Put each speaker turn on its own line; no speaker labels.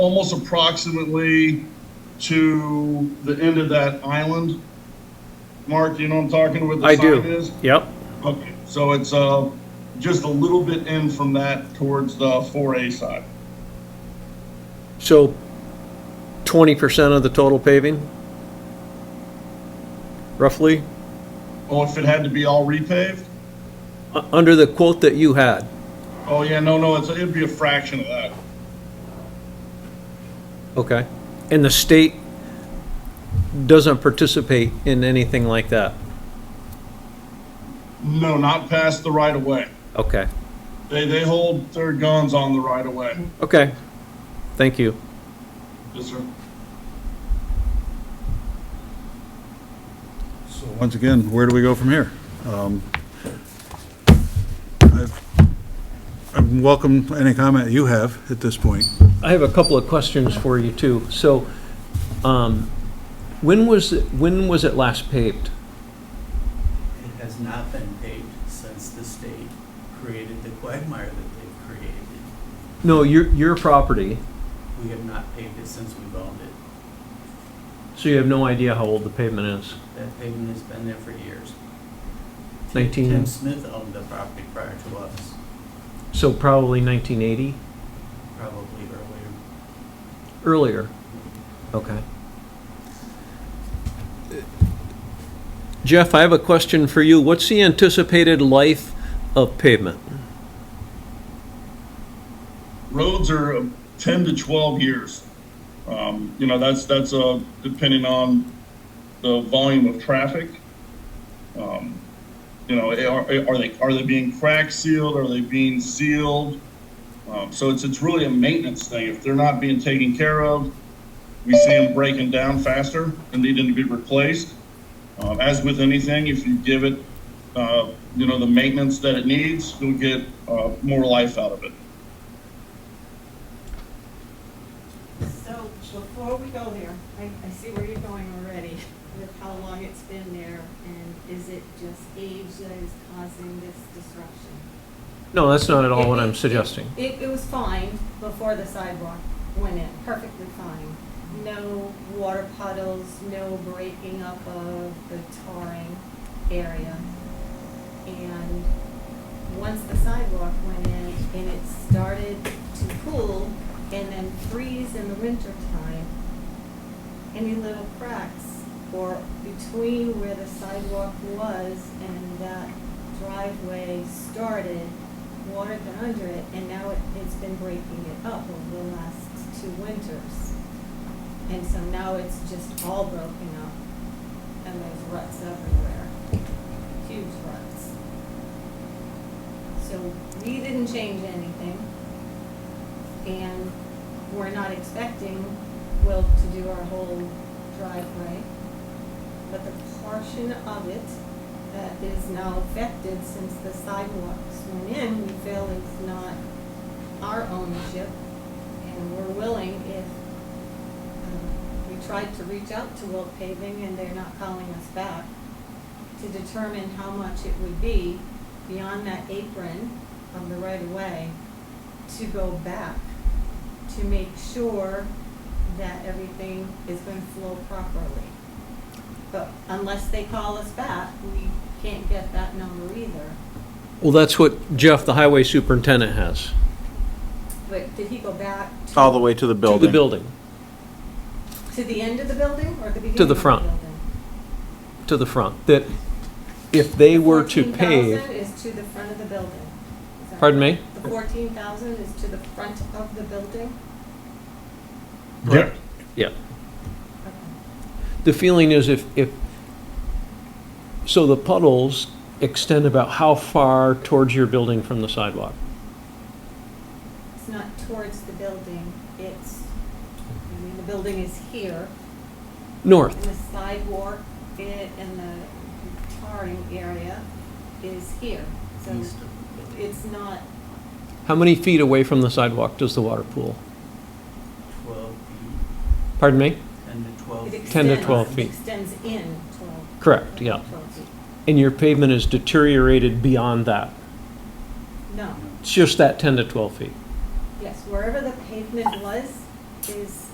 almost approximately to the end of that island. Mark, you know what I'm talking with
I
the sign
do.
is?
Yep.
Okay, so it's, uh, just a little bit in from that towards the four A side.
So 20% of the total paving? Roughly?
Oh, if it had to be all repaved?
U- Under the quote that you had?
Oh, yeah, no, no, it's, it'd be a fraction of that.
Okay. And the state doesn't participate in anything like that?
No, not past the right of way.
Okay.
They, they hold their guns on the right of way.
Okay. Thank you.
Yes, sir.
So once again, where do we go from here? Um, I've- I welcome any comment you have at this point.
I have a couple of questions for you too. So, um, when was, it- when was it last paved?
It has not been paved since the state created the quagmire that they've created.
No, your, your property,
We have not paved it since we've owned it.
so you have no idea how old the pavement is.
That pavement has been there for years. Tim-
Nineteen-
Tim Smith owned the property prior to us,
So probably 1980,
probably earlier.
earlier. Okay. Jeff, I have a question for you. What's the anticipated life of pavement?
roads are uh, 10 to 12 years. Um, you know, that's, that's, uh, depending on the volume of traffic. Um, you know, eh, are, are they, are they being crack sealed? Are they being sealed? Um, so it's, it's really a maintenance thing. If they're not being taken care of, we see them breaking down faster and needing to be replaced. Um, as with anything, if you give it, uh, you know, the maintenance that it needs, you'll get, uh, more life out of it.
So before we go there, I, I see where you're going already with how long it's been there and is it just age that is causing this disruption?
No, that's not at all what
It-
I'm
it-
suggesting.
It, it was fine before the sidewalk went in, perfectly fine. No water puddles, no breaking up of the tarring area. And once the sidewalk went in and it started to cool and then freeze in the winter time, any little cracks or between where the sidewalk was and that driveway started, water got under it, and now it, it's been breaking it up over the last two winters. And so now it's just all broken up, and there's ruts everywhere, huge ruts. So we didn't change anything, and we're not expecting Will to do our whole driveway. But the portion of it that is now affected since the sidewalks went in, we feel is not our ownership. And we're willing if, um, we tried to reach out to Will Paving and they're not calling us back, to determine how much it would be beyond that apron of the right of way to go back, to make sure that everything is going to flow properly. But unless they call us back, we can't get that number either.
Well, that's what Jeff, the highway superintendent, has.
But did he go back to-
All the way to the
To
building.
the building,
to the end of the building or the beginning
the
of the
front.
building?
to the front, that if they were to
14,000
pave,
is to the front of the building. Is that
pardon me?
right? The fourteen thousand is to the front of the building?
Correct.
Yeah.
Okay.
the feeling is if, if, so the puddles extend about how far towards your building from the sidewalk?
It's not towards the building, it's, I mean, the building is here, and
North,
the sidewalk it and the tarring area is here. So
East of the building,
it's not,
how many feet away from the sidewalk does the water pool?
twelve feet,
Pardon me?
ten to twelve.
it
feet.
extends.
10 to 12 feet.
Extends in twelve.
Correct, yeah.
12 feet.
And your pavement is deteriorated beyond that.
No,
It's just that 10 to 12 feet.
yes, wherever the pavement was is is